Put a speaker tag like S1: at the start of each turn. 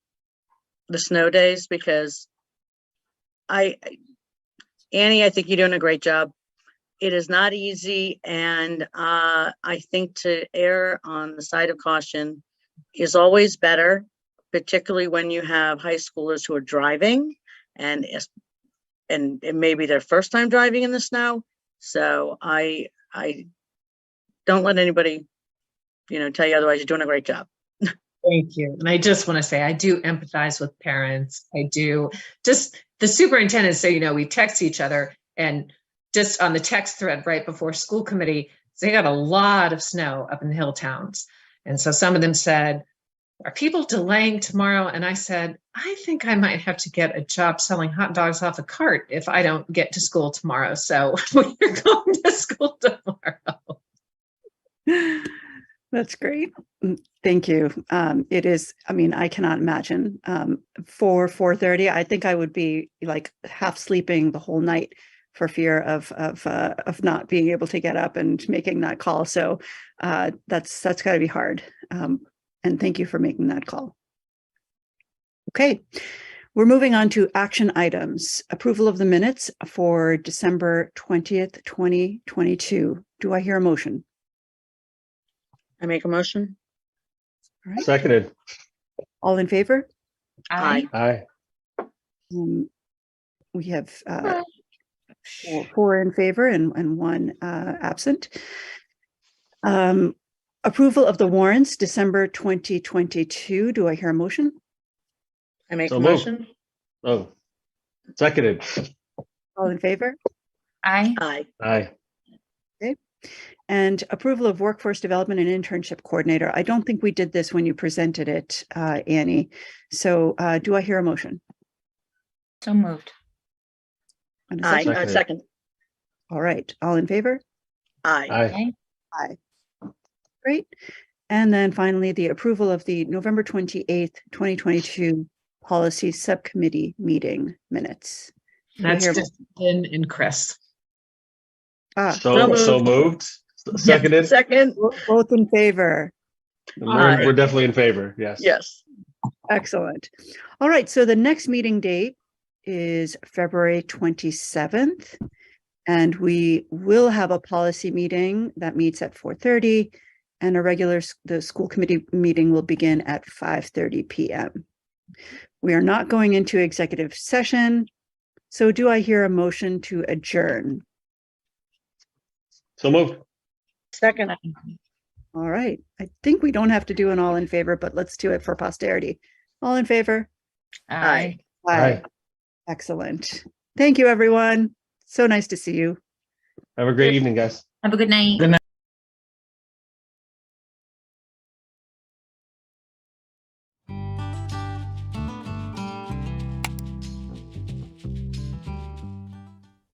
S1: the snow days because I, Annie, I think you're doing a great job. It is not easy and uh, I think to err on the side of caution is always better, particularly when you have high schoolers who are driving and is, and it may be their first time driving in the snow. So I, I don't let anybody, you know, tell you otherwise. You're doing a great job.
S2: Thank you. And I just want to say, I do empathize with parents. I do just the superintendent, so you know, we text each other and just on the text thread right before school committee, they got a lot of snow up in the hill towns. And so some of them said, Are people delaying tomorrow? And I said, I think I might have to get a job selling hot dogs off a cart if I don't get to school tomorrow. So we're going to school tomorrow.
S3: That's great. Mm, Thank you. Um, it is, I mean, I cannot imagine, um, for four thirty, I think I would be like half sleeping the whole night for fear of, of, uh, of not being able to get up and making that call. So, uh, that's, that's gotta be hard. Um, and thank you for making that call. Okay, we're moving on to action items. Approval of the minutes for December twentieth, twenty twenty-two. Do I hear a motion?
S1: I make a motion.
S3: All right.
S4: Seconded.
S3: All in favor?
S1: Aye.
S4: Aye.
S3: Um, we have, uh, four- four in favor and, and one, uh, absent. Um, approval of the warrants, December twenty twenty-two. Do I hear a motion?
S1: I make
S4: So
S1: a
S4: moved.
S1: motion.
S4: Oh. Seconded.
S3: All in favor?
S2: Aye.
S1: Aye.
S4: Aye.
S3: And approval of workforce development and internship coordinator. I don't think we did this when you presented it, uh, Annie. So, uh, do I hear a motion?
S5: So moved.
S3: And a
S1: Aye.
S3: second?
S1: Uh,
S4: Seconded.
S1: Second.
S3: All right, all in favor?
S1: Aye.
S4: Aye.
S3: Great. And then finally, the approval of the November 28th, 2022 Policy Subcommittee Meeting Minutes.
S2: That's
S3: Here.
S2: just Ben and Chris.
S3: Ah,
S4: So,
S1: so
S4: so moved. S- Seconded.
S1: Second,
S3: bo- both in favor.
S4: We're
S1: Aye.
S4: we're definitely in favor. Yes.
S1: yes.
S3: Excellent. All right, so the next meeting date is February 27th. And we will have a policy meeting that meets at 4:30 and a regular, s- the school committee meeting will begin at 5:30 PM. We are not going into executive session. So do I hear a motion to adjourn?
S4: So moved.
S1: Second.
S3: All right, I think we don't have to do an all in favor, but let's do it for posterity. All in favor?
S1: Aye.
S4: Aye.
S3: Excellent. Thank you, everyone. So nice to see you.
S4: Have a great evening, guys.
S5: Have a good night.
S4: Good night.